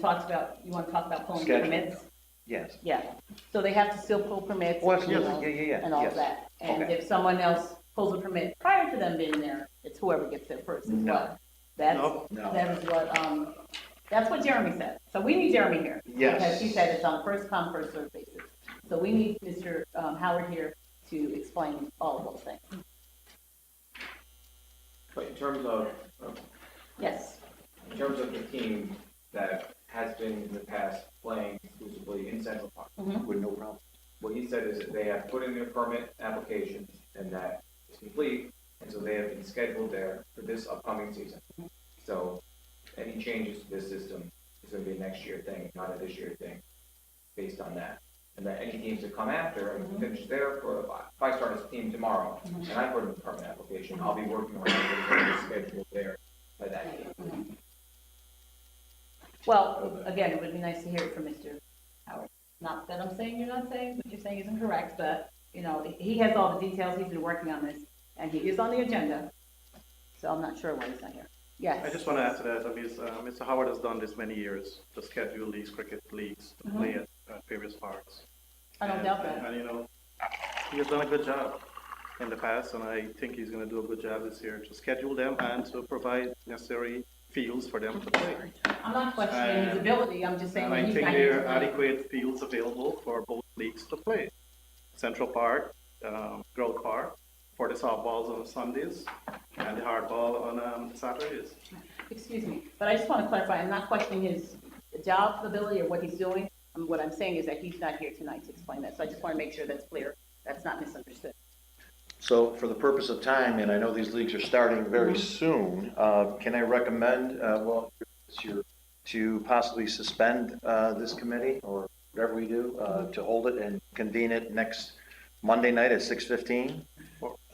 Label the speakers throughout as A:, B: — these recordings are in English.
A: talks about, you want to talk about pulling
B: Schedule.
A: permits?
B: Yes.
A: Yeah, so they have to still pull permits.
B: Well,
A: and, you know,
B: yeah, yeah, yeah.
A: And all
B: yes.
A: that. And
B: Okay.
A: if someone else pulls a permit prior to them being there, it's whoever gets there first as
B: No.
A: well. That's,
B: Nope, no.
A: that is what, um, that's what Jeremy said. So we need Jeremy here. Because he
B: Yes.
A: said it's on first come, first served basis. So we need Mr. um, Howard here to explain all of those things.
C: But in terms of,
A: Yes,
C: in terms of the team that has been in the past playing exclusively in Central Park,
B: With no problem.
C: what he said is that they have put in their permit application and that is complete, and so they have been scheduled there for this upcoming season. So any changes to this system is gonna be a next year thing, not a this year thing, based on that. And that any teams that come after and finish their, for, if I start as a team tomorrow,
A: Mhm.
C: and I put in a permit application, I'll be working around it, and it's scheduled there by that date.
A: well, again, it would be nice to hear it from Mr. Howard. Not that I'm saying you're not saying, what you're saying isn't correct, but, you know, he has all the details, he's been working on this, and he is on the agenda, so I'm not sure why he's not here. Yes.
D: I just want to add to that, I mean, uh, Mr. Howard has done this many years, to schedule these cricket leagues to play at, at various parks.
A: Mm-hmm. I don't
D: And-
A: doubt that.
D: And, you know, he has done a good job in the past, and I think he's going to do a good job this year to schedule them and to provide necessary fields for them to play.
A: I'm not questioning his
D: And-
A: ability, I'm just saying.
D: And I
A: he's
D: think
A: not
D: there
A: here.
D: are adequate fields available for both leagues to play. Central Park, um, Grove Park, for the softballs on Sundays, and the hardball on, um, Saturdays.
A: Excuse me, but I just want to clarify, I'm not questioning his job ability or what he's doing. And what I'm saying is that he's not here tonight to explain that, so I just want to make sure that's clear, that's not misunderstood.
B: So for the purpose of time, and I know these leagues are starting very
A: Mm-hmm.
B: soon, uh, can I recommend, uh, well, it's your, to possibly suspend uh, this committee or whatever we do, uh, to hold it and convene it next Monday night at 6:15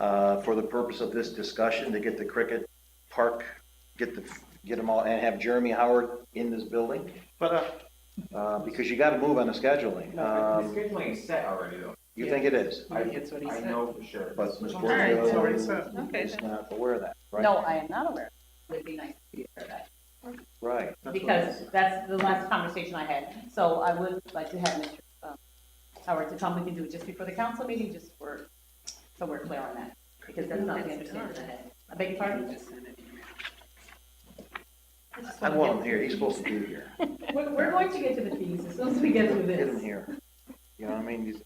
B: uh, for the purpose of this discussion, to get the cricket park, get the, get them all, and have Jeremy Howard in this building,
D: But, uh,
B: uh, because you got to move on the scheduling.
C: The
B: Um,
C: scheduling is set already, though.
B: You think it is?
C: I,
A: That's what he
C: I
A: said.
C: know for sure.
B: But Ms.
A: right,
B: Borio
D: so-
A: Okay,
B: is
A: then.
B: not aware of that, right?
A: No, I am not aware. Would be nice to be aware of
B: Right.
A: that,
D: that's what-
A: because that's the last conversation I had. So I would like to have Mr. um, Howard to come, we can do it just before the council meeting, just for, so we're clear on that, because that's not the understanding I had. I beg your pardon? just
B: I
A: wanna
B: want
A: get-
B: him here, he's supposed to be here.
A: We're, we're going to get to the fees as soon as we get through
B: Get him
A: this.
B: here. You know, I mean, he's-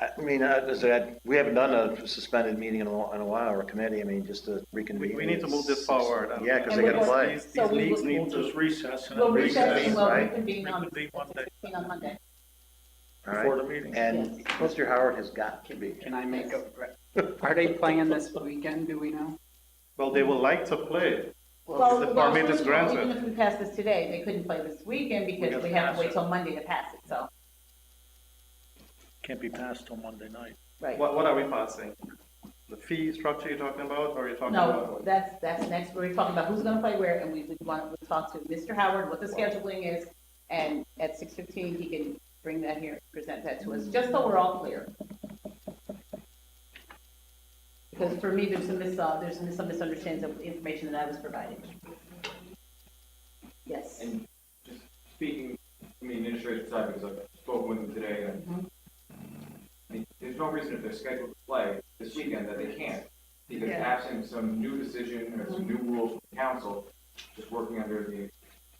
B: I, I mean, I, as I said, we haven't done a suspended meeting in a, while- in a while, or a committee, I mean, just to reconvene.
D: We, we need to move this forward. and-
B: Yeah, because they
A: And
B: gotta
A: we're
B: play.
D: These,
A: So
D: these
A: we
D: leagues
A: will-
D: need
E: We'll
D: to,
E: just recess. and
A: We'll recess
B: Recess,
A: and we'll
B: right?
A: reconvene on,
E: Reconvene Monday.
A: 16 on Monday.
B: All right.
E: Before the meeting.
B: And
A: Yes.
B: Mr. Howard has got to be here.
F: Can I make a, are they playing this weekend, do we know?
D: well, they will like to play.
A: Well,
D: the
A: well,
D: permit
A: first
D: is
A: of all,
D: granted.
A: Even if we pass this today, they couldn't play this weekend because
E: gotta
A: we have
E: pass
A: to wait
E: it.
A: till Monday to pass it, so,
E: Can't be passed till Monday night.
A: right.
D: What, what are we passing? The fee structure you're talking about, or are you talking
A: No,
D: about?
A: that's, that's next, we're talking about who's gonna play where, and we would want to talk to Mr. Howard, what the scheduling is, and at six fifteen, he can bring that here, present that to us, just so we're all clear. Because for me, there's some mis, uh, there's some misunderstandings of the information that I was provided. Yes.
C: And just speaking from the administrative side, because I've spoken with them today, and I mean, there's no reason if they're scheduled to play this weekend that they can't. Because
A: Yeah.
C: absent some new decision or some new rules from the council, just working under the,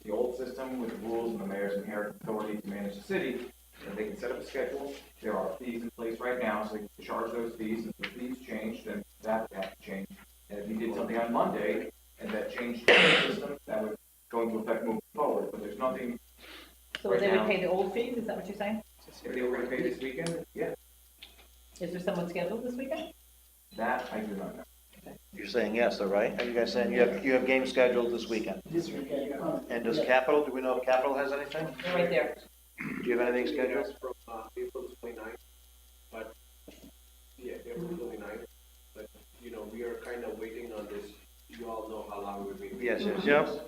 C: the old system with the rules and the mayor's inherent authority to manage the city, and they can set up a schedule. There are fees in place right now, so they can charge those fees, and if the fees change, then that would have to change. And if you did something on Monday, and that changed the system, that would go into effect moving forward, but there's nothing,
A: So they would
C: Right now-
A: pay the old fees, is that what you're saying?
C: if they were gonna pay this weekend, yeah,
A: Is there someone scheduled this weekend?
C: that I do not know.
B: You're saying yes, though, right? Are you guys saying you have, you have games scheduled this weekend? And does Capital, do we know if Capital has anything?
A: They're right there.
B: Do you have anything scheduled?
G: From, uh, April twenty-ninth, but, yeah, April twenty-ninth, but, you know, we are kind of waiting on uh, this, you all know how long we've been. waiting.
B: Yes, yes, yes.
D: Yep,
G: uh,